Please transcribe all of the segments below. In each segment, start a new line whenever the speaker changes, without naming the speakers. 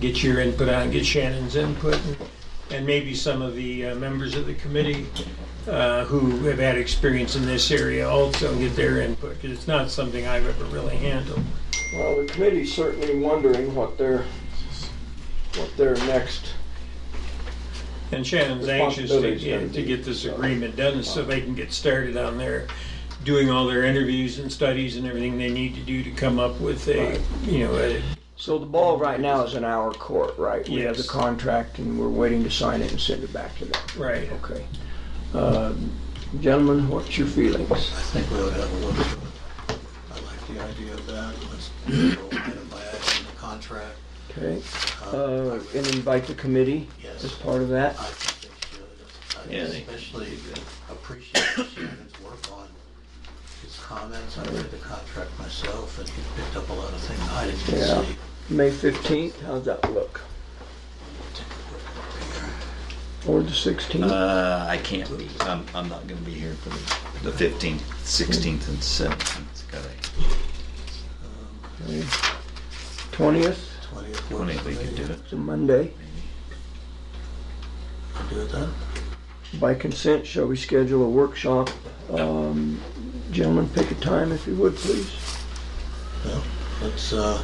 get your input on, it, get Shannon's input, and- and maybe some of the uh, members of the committee uh, who have had experience in this area also get their input, because it's not something I've ever really handled.
Well, the committee's certainly wondering what their, what their next,
And Shannon's anxious to
Responsibility's gonna
get, to
be-
get this agreement done so they can get started on their, doing all their interviews and studies and everything they need to do to come up with a,
Right.
you know, a,
so the ball right now is in our court, right? We have the
Yes.
contract and we're waiting to sign it and send it back to them.
right.
Okay. Uh, Gentlemen, what's your feelings?
I think we ought to have a look at it. I like the idea of that, let's go item by item in the contract.
Okay,
Uh, I
Uh,
would-
and invite the committee
Yes.
as part of that?
I think they should, I
Yeah, they-
especially appreciate Shannon's work on his comments. I read the contract myself, and he picked up a lot of things I didn't
Yeah.
see.
May 15th, how's that look? Or the 16th?
Uh, I can't be, I'm, I'm not gonna be here for the, the fifteenth, sixteenth and seventeenth, gotta,
20th,
Twentieth
when
works for
we could do
me.
it.
it's a Monday.
I'll Do it then?
By consent, shall we schedule a workshop? Um, Gentlemen, pick a time if you would, please.
Well, let's, uh,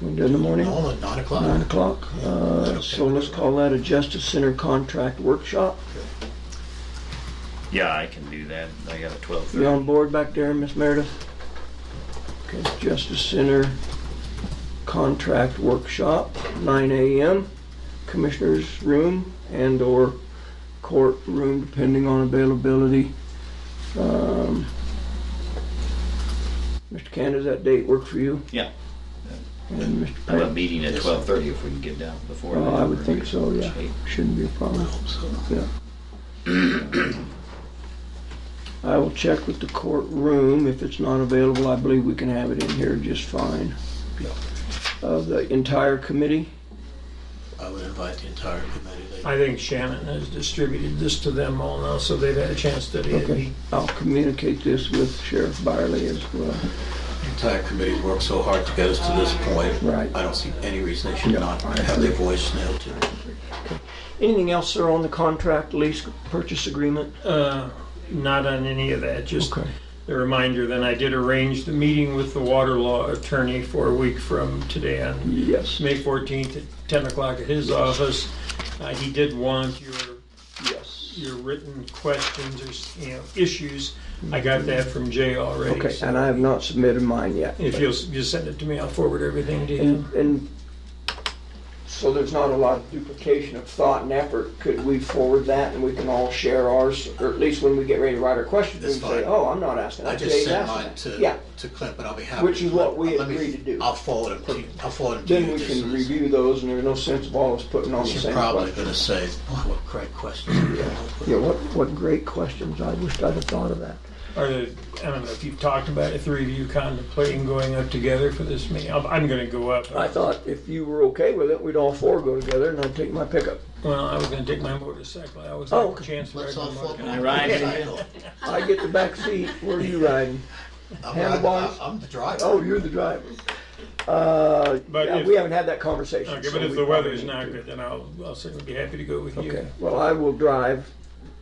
We do it in the morning,
all at nine o'clock.
9 o'clock. Uh, So let's call that a Justice Center Contract Workshop.
Yeah, I can do that, I got a twelve
You
thirty.
on board back there, Miss Meredith? Okay, Justice Center Contract Workshop, 9 AM, Commissioners Room and/or courtroom, depending on availability. Um, Mr. Canada, does that date work for you?
Yeah,
And Mr.
I have a
Payne?
meeting at twelve thirty if we can get down before.
Oh,
that.
I would think so, yeah. Shouldn't be a
I
problem.
hope so.
Yeah. I will check with the courtroom. If it's not available, I believe we can have it in here just fine.
Yeah.
Uh, the entire committee?
I would invite the entire committee. They-
I think Shannon has distributed this to them all now, so they've had a chance to study it.
Okay. I'll communicate this with Sheriff Byerly as well.
entire committee's worked so hard to get us to this point.
Right.
I don't see any reason they should
Yeah,
not
I
have their voice nailed to it.
Anything else, sir, on the contract lease purchase agreement?
Uh, Not on any of that, just
Okay.
a reminder, then I did arrange the meeting with the water law attorney for a week from today on
Yes.
May 14th at 10 o'clock at his office. Uh, He did want your
Yes.
your written questions or, s- you know, issues. I got that from Jay already.
Okay,
so
and I have not submitted mine yet.
If you'll s- just send it to me, I'll forward everything to
And,
him.
and so there's not a lot of duplication of thought and effort. Could we forward that and we can all share ours? Or at least when we get ready to write our questions, we
That's
can say,
fine.
oh, I'm not asking
I
that.
just
Jay's
sent
asking
mine
that.
to,
Yeah,
to Clint, but I'll be happy.
Which is
to-
what we
let me-
agreed to do.
I'll forward it to you, I'll forward it to you.
then we
just
can
as-
review those and there's no sense of all of us putting on the
You're
same
probably
question.
gonna say, "Boy, what great question.
Yeah, what, what great questions. I wished I'd have thought of that.
Or, the- I don't know if you've talked about it, three of you contemplating going up together for this meeting. I'm- I'm going to go up.
I thought if you were okay with it, we'd all four go together and I'd take my pickup.
Well, I was going to take my motorcycle. I always
Oh,
like a
okay.
chance to ride
Let's
my
all flip
motorcycle.
it.
ride in?
I get the back seat. Where are you riding?
I'm riding,
Handlebars?
I'm I'm the driver.
Oh, you're the driver. Uh,
But
yeah,
if-
we haven't had that conversation.
Okay,
so
but if
we
the
probably
weather's
need
not
to.
good, then I'll, I'll certainly be happy to go with you.
Okay, well, I will drive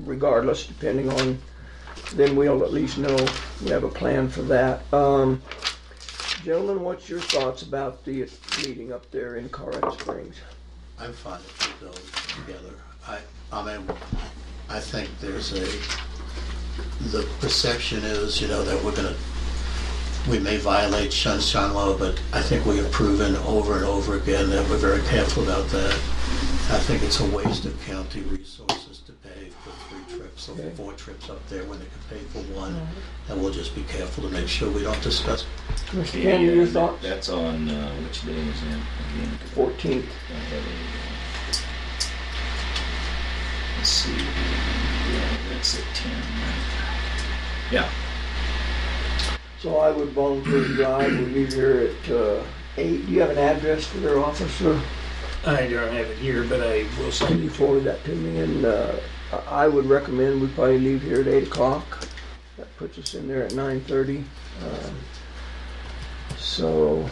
regardless, depending on, then we'll at least know, we have a plan for that. Um, gentlemen, what's your thoughts about the meeting up there in Colorado Springs?
I'm fine if we go together. I, I mean, I think there's a, the perception is, you know, that we're gonna, we may violate sunshine law, but I think we have proven over and over again that we're very careful about that. I think it's a waste of county resources to pay for three trips or
Okay.
four trips up there when they could pay for one. And we'll just be careful to make sure we don't discuss
Mr. Cannon, your
And
thoughts?
uh, That's on, uh, which day is that? Again,
Fourteenth,
I have a- Let's see, yeah, that's at ten. Yeah,
so I would volunteer to drive, we'll leave here at, uh, eight. Do you have an address for their officer?
I don't have it here, but I will
Can
send
you
you for
forward that to me? And, uh, I I would recommend we probably leave here at eight o'clock. That puts us in there at nine thirty. Uh, So